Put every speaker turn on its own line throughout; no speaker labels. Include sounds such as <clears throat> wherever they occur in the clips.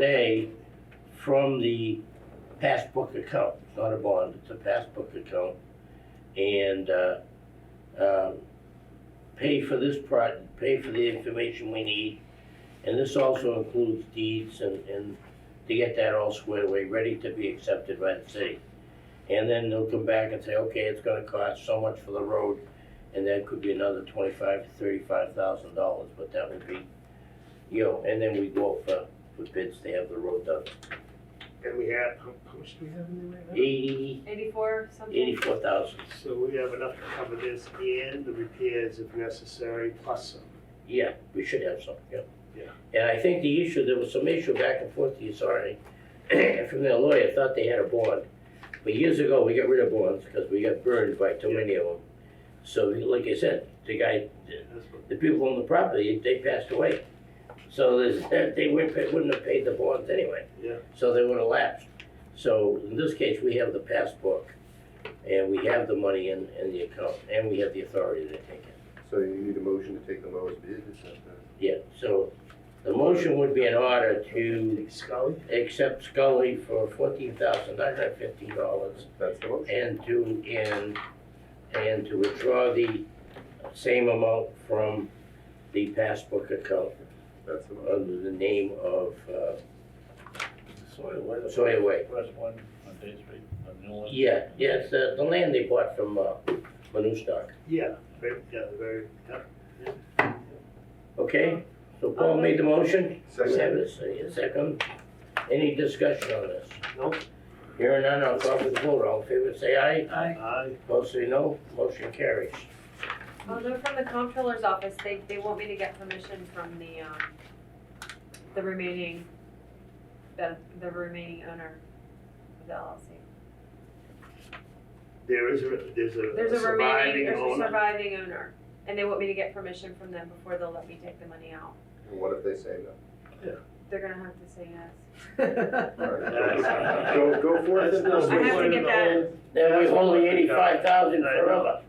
today from the passbook account. It's not a bond, it's a passbook account. And, uh, um, pay for this project, pay for the information we need. And this also includes deeds and, and to get that all squared away, ready to be accepted by the city. And then they'll come back and say, okay, it's gonna cost so much for the road, and that could be another twenty-five to thirty-five thousand dollars, but that would be, you know, and then we go out for, for bids to have the road done.
And we have, how how much do we have in there right now?
Eighty,
Eighty-four something?
eighty-four thousand,
So we have enough to cover this and the repairs if necessary, plus some.
yeah, we should have some, yeah.
Yeah.
And I think the issue, there was some issue back and forth, the authority, <clears throat> from their lawyer, thought they had a bond. But years ago, we got rid of bonds, because we got burned by too many of them. So, like I said, the guy,
That's what-
the people on the property, they passed away. So there's, they wouldn't, pay- wouldn't have paid the bonds anyway.
Yeah.
So they would have lapsed. So in this case, we have the passbook, and we have the money in, in the account, and we have the authority to take it.
So you need a motion to take the lowest bid or something?
Yeah, so the motion would be in order to
Take Scully?
accept Scully for fourteen thousand nine hundred fifty dollars
That's the motion.
and to, and, and to withdraw the same amount from the passbook account
That's the motion.
under the name of, uh,
Soy Weather.
Soy Away.
West one on Day Street, on the north.
Yeah, yes, uh, the land they bought from, uh, Manustock,
Yeah, very, yeah, very, yeah.
okay? So Paul made the motion, we have
Second,
a s- a second, any discussion on this?
No.
Hearing none, I'll call for the vote, all in favor, say aye,
Aye.
opposed say no, motion carries.
Well, Oh, they're from the comptroller's office, they, they want me to get permission from the, um, the remaining, the, the remaining owner of the LLC.
There is, a there's
There's
a
a remaining,
surviving
there's a
owner.
surviving owner, and they want me to get permission from them before they'll let me take the money out.
and what if they say no?
They're gonna have to say yes.
All right,
That's-
Go, go forth
That's
and
not
no.
I have to get that,
Then we hold the eighty-five thousand forever.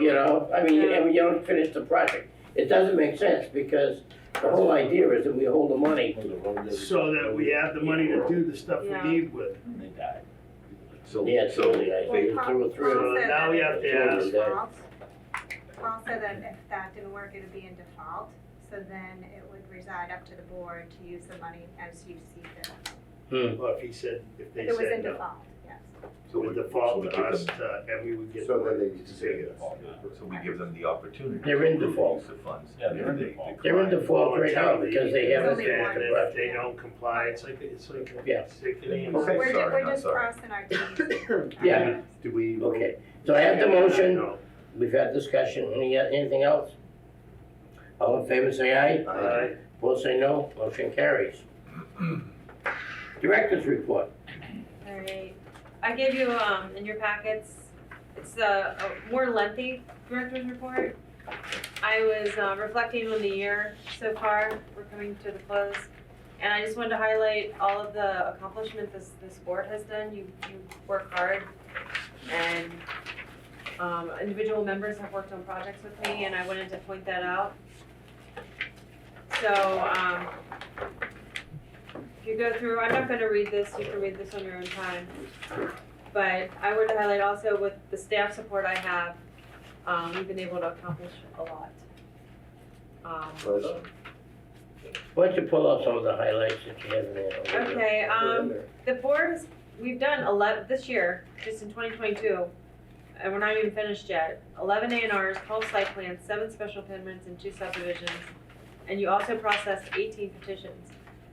You know, I mean, and we don't finish the project. It doesn't make sense because the whole idea is that we hold the money.
So that we have the money to do the stuff
Yeah.
we need with.
They died.
So,
Yeah, so
so,
the idea, two or
So
three.
now we have to ask,
default. Paul said that if that didn't work, it would be in default, so then it would reside up to the board to use the money as you see fit.
well, if he said, if they
If it was in
said no,
default, yes.
so
with
we-
default
so
with
we give
us,
them-
uh, and we would get.
So then they need to
say
say
yes.
yes.
So we give them the opportunity.
They're in
to
default.
Use the funds.
Yeah, they're in
They- they
default.
They're in
decline.
default right now because they haven't
And
finished the
if
project.
they don't comply, it's like, it's like.
Yeah.
it's like an
Okay.
animal.
We're ju-
sorry,
We're
not
just
sorry.
crossing our
<coughs>
Ts.
Yeah.
Do we?
Okay, so I have the motion.
No.
We've had discussion. Any, anything else? All in favor, say aye.
Aye.
Opposed, say no. Motion carries. <clears throat> Director's report.
alright. I gave you, um, in your packets, it's a, a more lengthy director's report. I was uh, reflecting on the year so far, we're coming to the close. And I just wanted to highlight all of the accomplishments this, this board has done, you, you work hard. And, um, individual members have worked on projects with me, and I wanted to point that out. So, um, if you go through, I'm not gonna read this, you can read this on your own time. But I would highlight also with the staff support I have, um, we've been able to accomplish a lot. Um,
Well,
Why don't you pull out some of the highlights that you have in there?
okay,
they're
um,
in there.
the board has, we've done eleven, this year, just in twenty twenty-two, and we're not even finished yet, eleven A and Rs, twelve site plans, seven special permits and two subdivisions. And you also processed eighteen petitions.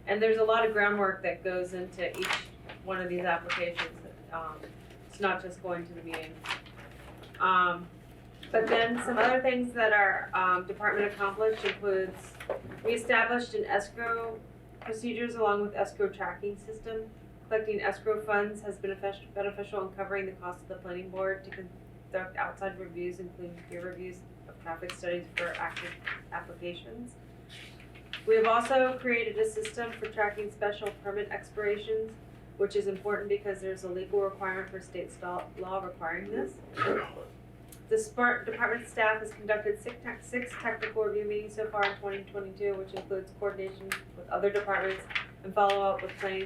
And there's a lot of groundwork that goes into each one of these applications, um, it's not just going to the meeting. Um, but then some other things that our, um, department accomplished includes, we established an escrow procedures along with escrow tracking system. Collecting escrow funds has been effic- beneficial in covering the cost of the planning board to conduct outside reviews, including peer reviews of traffic studies for active applications. We have also created a system for tracking special permit expirations, which is important because there's a legal requirement for state sta- law requiring this. The Spark department staff has conducted six, tec- six technical review meetings so far in twenty twenty-two, which includes coordination with other departments and follow up with planning